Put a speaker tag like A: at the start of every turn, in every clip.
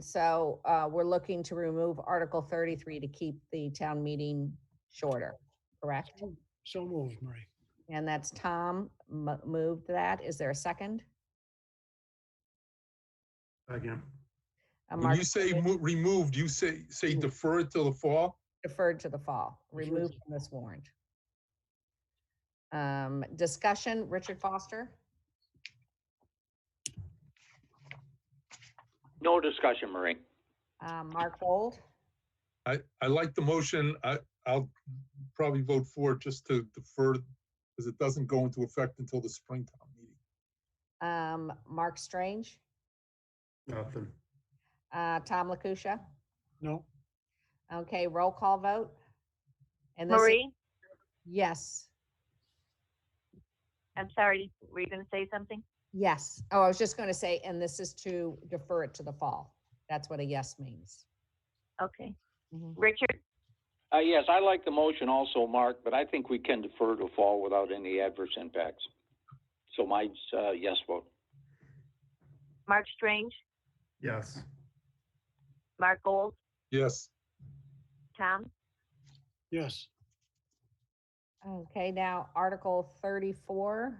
A: so, uh, we're looking to remove Article thirty-three to keep the town meeting shorter, correct?
B: So moved, Marie.
A: And that's Tom mo- moved that. Is there a second?
B: Again.
A: Uh,
C: When
A: Mark
C: you say mo- removed, you say, say
B: Removed.
D: Mm-hmm.
C: deferred till the fall?
A: deferred to the fall, removed from this warrant. Um, discussion, Richard Foster?
E: No discussion, Marie.
A: Uh, Mark Gold?
C: I, I like the motion. I, I'll probably vote for it just to defer because it doesn't go into effect until the springtime meeting.
A: Um, Mark Strange?
B: Nothing.
A: Uh, Tom Lakusha?
B: No,
A: Okay, roll call vote? And this is-
F: Marie,
A: Yes,
F: I'm sorry, were you gonna say something?
A: yes. Oh, I was just going to say, and this is to defer it to the fall. That's what a yes means.
F: Okay.
A: Mm-hmm.
F: Richard,
E: Uh, yes, I like the motion also, Mark, but I think we can defer to fall without any adverse impacts. So my, uh, yes vote.
F: Mark Strange,
G: Yes,
F: Mark Gold,
C: Yes,
F: Tom,
B: yes,
A: Okay, now Article 34.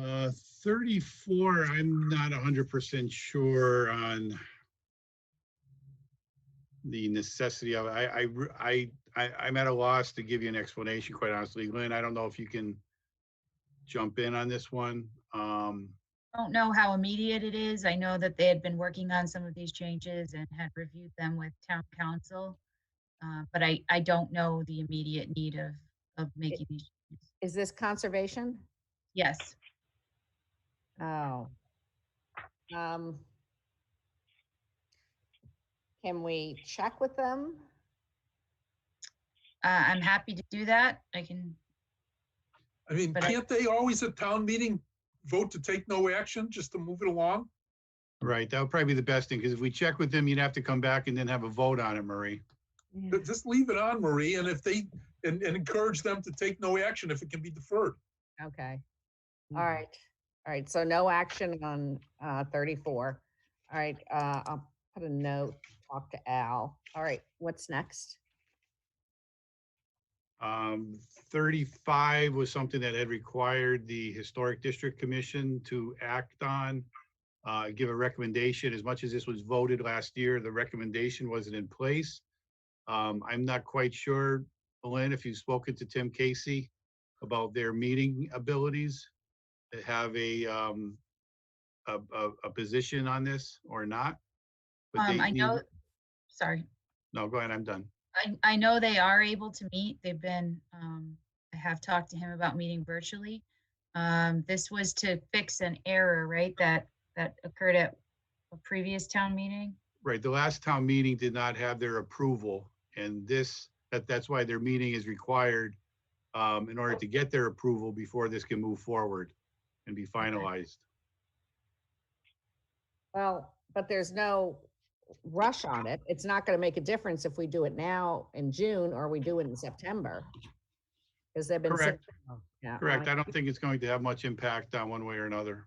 H: Uh, thirty-four, I'm not hundred percent sure on the necessity of, it. I, I, re- I, I, I'm at a loss to give you an explanation, quite honestly, Lynn, I don't know if you can jump in on this one, um,
D: don't know how immediate it is. I know that they had been working on some of these changes and had reviewed them with town council. uh, But I, I don't know the immediate need of, of making these. changes.
A: Is this conservation?
D: Yes,
A: Oh. Um. Can we check with them?
D: uh, I'm happy to do that. I can,
C: I mean,
D: But I-
C: can't they always at town meeting vote to take no action, just to move it along?
H: right, that would probably be the best thing, because if we check with them, you'd have to come back and then have a vote on it, Marie.
C: But Just leave it on, Marie, and if they, and, and encourage them to take no action if it can be deferred.
A: Okay. All
D: Mm-hmm.
A: right. All right. So no action on uh, 34. All right. Uh, I'll put a note, talk to Al. All right. What's next?
H: Um, thirty-five was something that had required the Historic District Commission to act on. Uh, give a recommendation, as much as this was voted last year, the recommendation wasn't in place. Um, I'm not quite sure, Lynn, if you've spoken to Tim Casey about their meeting abilities to have a, um, a, a, a position on this or not. but
D: um,
H: they
D: I
H: need-
D: know, sorry,
H: No, go ahead, I'm done.
D: I, I know they are able to meet. They've been, um, I have talked to him about meeting virtually. Um, this was to fix an error, right, that, that occurred at a previous town meeting?
H: Right, the last town meeting did not have their approval, and this, that, that's why their meeting is required um, in order to get their approval before this can move forward and be finalized.
A: Well, but there's no rush on it. It's not going to make a difference if we do it now in June or we do it in September. Because they've been. sitting-
H: Correct,
A: Yeah,
H: correct.
A: I-
H: I don't think it's going to have much impact on one way or another.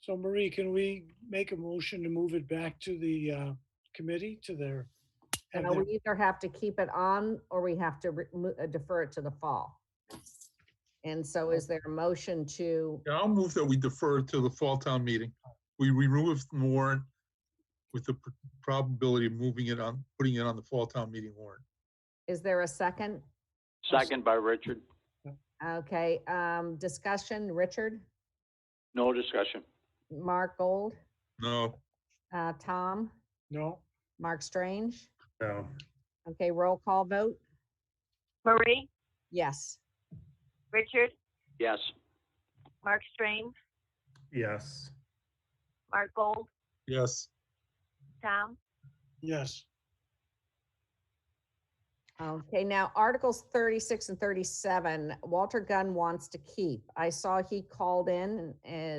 B: so Marie, can we make a motion to move it back to the uh, committee, to their? have
A: No,
B: their-
A: we either have to keep it on or we have to re- mo- uh, defer it to the fall. And so is there a motion to,
C: Yeah, I'll move that we defer to the fall town meeting. We remove the warrant with the pr- probability of moving it on, putting it on the fall town meeting warrant.
A: is there a second?
E: Second by Richard.
A: Okay, um, discussion, Richard,
E: No discussion.
A: Mark Gold,
C: No,
A: uh, Tom,
B: No,
A: Mark Strange.
G: no,
A: Okay, roll call vote.
F: Marie,
A: Yes.
F: Richard,
E: Yes.
F: Mark Strange,
G: yes,
F: Mark Gold,
C: yes,
F: Tom,
B: yes,
A: Okay, now Articles thirty-six and thirty-seven, Walter Gunn wants to keep. I saw he called in and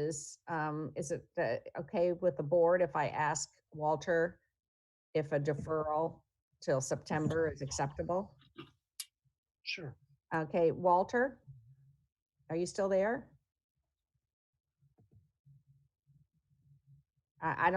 A: is, um, is it, the- okay with the board if I ask Walter if a deferral till September is acceptable?
B: sure.
A: Okay, Walter? Are you still there? I, I don't